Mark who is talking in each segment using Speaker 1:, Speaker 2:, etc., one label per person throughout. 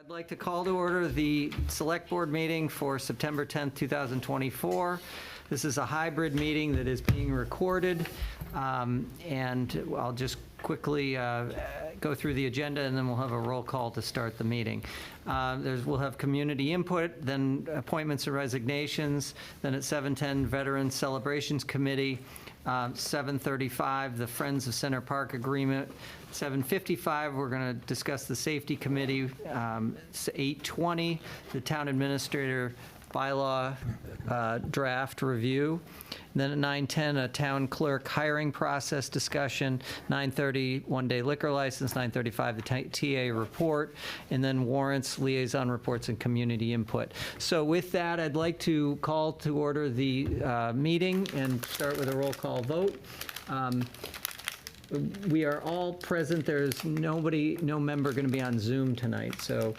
Speaker 1: I'd like to call to order the Select Board meeting for September 10th, 2024. This is a hybrid meeting that is being recorded, um, and I'll just quickly uh, go through the agenda, and then we'll have a roll call to start the meeting. Uh, There's, we'll have community input, then appointments and resignations, then at 7:10, Veterans Celebrations Committee, um, 7:35, the Friends of Center Park Agreement. 7:55, we're going to discuss the Safety Committee. Um, s- 8:20, the Town Administrator Bylaw uh, Draft Review. And Then at 9:10, a Town Clerk Hiring Process Discussion. 9:30, One-Day Liquor License. 9:35, the T- TA Report. And then Warrants, Liaison Reports, and Community Input. So with that, I'd like to call to order the uh, meeting and start with a roll call vote. Um, we are all present. There's nobody, no member going to be on Zoom tonight, so,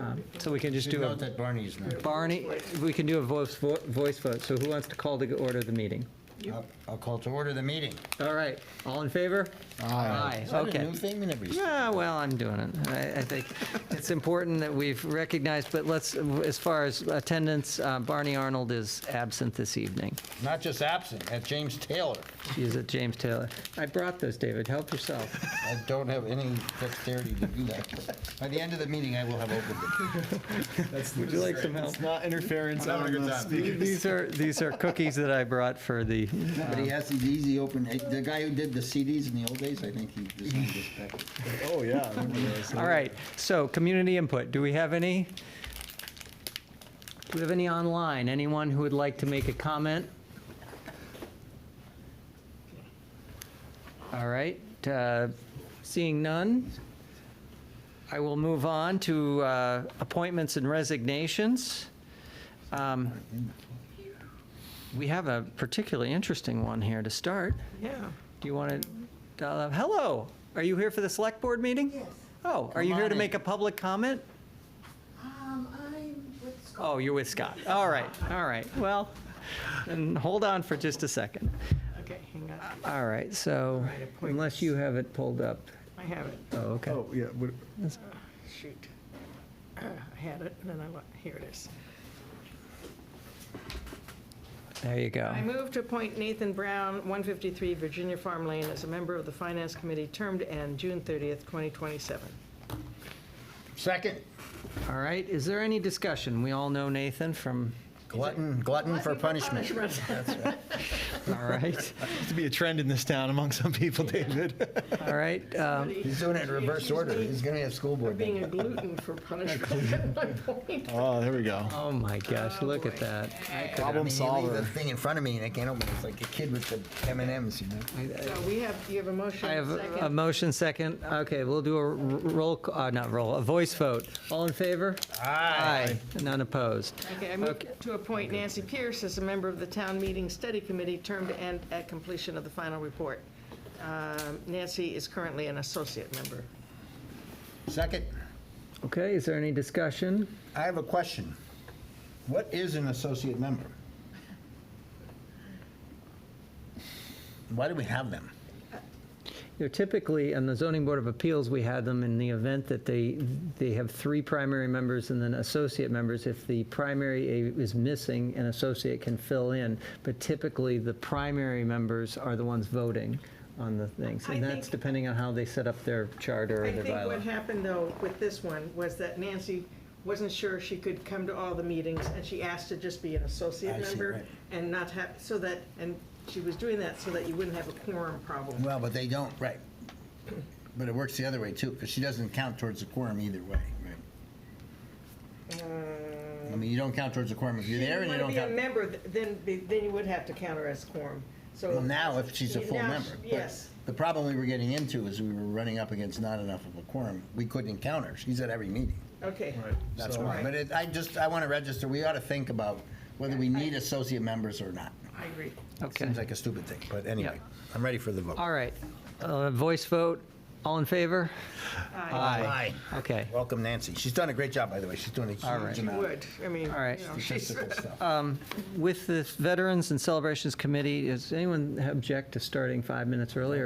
Speaker 1: um, so we can just
Speaker 2: Should
Speaker 1: do
Speaker 2: note
Speaker 1: a,
Speaker 2: that Barney's not.
Speaker 1: Barney, we can do a voice, vo- voice vote. So who wants to call to order the meeting?
Speaker 2: I'll- I'll call to order the meeting.
Speaker 1: All right, all in favor? Aye,
Speaker 2: Is that a
Speaker 1: okay.
Speaker 2: new thing? We never used to-
Speaker 1: Yeah, well, I'm doing it. I, I think it's important that we've recognized, but let's, as far as attendance, uh, Barney Arnold is absent this evening.
Speaker 2: Not just absent, at James Taylor.
Speaker 1: She's at James Taylor. I brought those, David. Help yourself.
Speaker 2: I don't have any dexterity to do that. By the end of the meeting, I will have opened it.
Speaker 1: Would you like some help?
Speaker 3: It's not interference
Speaker 2: I'm
Speaker 3: on
Speaker 2: having a good
Speaker 3: the
Speaker 2: time.
Speaker 3: speakers.
Speaker 1: These are, these are cookies that I brought for the,
Speaker 2: But he has these easy open, eh, the guy who did the CDs in the old days, I think he designed this back.
Speaker 3: Oh, yeah. I remember those.
Speaker 1: All right, so community input, do we have any? Do we have any online? Anyone who would like to make a comment? All right, uh, seeing none, I will move on to uh, appointments and resignations. Um, We have a particularly interesting one here to start.
Speaker 4: Yeah.
Speaker 1: Do you want to, uh, hello, are you here for the select board meeting?
Speaker 5: Yes,
Speaker 1: Oh, are
Speaker 2: Come
Speaker 1: you here
Speaker 2: on
Speaker 1: to
Speaker 2: in.
Speaker 1: make a public comment?
Speaker 5: um, I'm with Scott.
Speaker 1: Oh, you're with Scott. All right, all right. Well, then hold on for just a second.
Speaker 4: Okay, hang on.
Speaker 1: All right, so
Speaker 4: right, appointments.
Speaker 1: unless you have it pulled up.
Speaker 4: I have it.
Speaker 1: Oh, okay.
Speaker 3: Oh, yeah. what-
Speaker 4: Shoot. I had it, and then I, lo- here it is.
Speaker 1: There you go.
Speaker 4: I move to appoint Nathan Brown, 153 Virginia Farm Lane, as a member of the Finance Committee, term to end June 30th, 2027.
Speaker 2: Second,
Speaker 1: All right, is there any discussion? We all know Nathan from,
Speaker 2: glutton, glutton for punishment.
Speaker 1: all right,
Speaker 3: Used to be a trend in this town among some people, David.
Speaker 1: all right. um,
Speaker 2: He's doing it in reverse order. He's gonna have school
Speaker 4: For
Speaker 2: board.
Speaker 4: being
Speaker 2: meeting.
Speaker 4: a gluten for punishment at my point.
Speaker 3: Oh, there we go.
Speaker 1: Oh, my gosh, look at that. I could-
Speaker 2: I mean,
Speaker 3: Problem
Speaker 2: you leave the
Speaker 3: solver.
Speaker 2: thing in front of me and I can't open it. It's like a kid with the M and M's, you know?
Speaker 4: So we have, you have a motion,
Speaker 1: I have a
Speaker 4: second.
Speaker 1: motion second. Okay, we'll do a r- roll, c- uh, not roll, a voice vote. All in favor? Aye. None opposed.
Speaker 4: Okay, I move to appoint Nancy Pierce as a member of the Town Meeting Study Committee, term to end at completion of the final report. Um, Nancy is currently an associate member.
Speaker 2: Second,
Speaker 1: Okay, is there any discussion?
Speaker 2: I have a question. What is an associate member? Why do we have them?
Speaker 1: You know, typically, on the zoning board of appeals, we had them in the event that they, they have three primary members and then associate members. If the primary a- is missing, an associate can fill in, but typically, the primary members are the ones voting on the things.
Speaker 4: I
Speaker 1: And that's
Speaker 4: think-
Speaker 1: depending on how they set up their charter or
Speaker 4: I
Speaker 1: their
Speaker 4: think what
Speaker 1: bylaw.
Speaker 4: happened, though, with this one, was that Nancy wasn't sure she could come to all the meetings, and she asked to just be an associate
Speaker 2: I see,
Speaker 4: member
Speaker 2: right.
Speaker 4: and not have, so that, and she was doing that so that you wouldn't have a quorum problem.
Speaker 2: Well, but they don't, right. But it works the other way too, because she doesn't count towards the quorum either way, right? I mean, you don't count towards the quorum if you're there and you don't
Speaker 4: If you want to Mm, be a
Speaker 2: count.
Speaker 4: member, th- then, be- then you would have to count her as quorum, so.
Speaker 2: Well, now if she's a full
Speaker 4: Now,
Speaker 2: member. but
Speaker 4: Yes.
Speaker 2: The problem we were getting into is we were running up against not enough of a quorum. We couldn't count her. She's at every meeting.
Speaker 4: Okay.
Speaker 2: That's
Speaker 4: So-
Speaker 2: why. But it, I just, I want to register, we ought to think about whether we need associate members or not.
Speaker 4: I agree.
Speaker 1: Okay.
Speaker 2: Seems like a stupid thing, but anyway,
Speaker 1: Yeah.
Speaker 2: I'm ready for the vote.
Speaker 1: All right, Uh, voice vote, all in favor?
Speaker 4: Uh,
Speaker 2: Aye.
Speaker 1: Okay.
Speaker 2: Welcome Nancy. She's done a great job, by the way. She's doing a
Speaker 1: All right.
Speaker 2: huge
Speaker 4: She
Speaker 2: amount
Speaker 4: would,
Speaker 2: of
Speaker 4: I mean, you
Speaker 1: All right.
Speaker 4: know, she's,
Speaker 2: statistical stuff.
Speaker 1: With the Veterans and Celebrations Committee, does anyone object to starting five minutes earlier?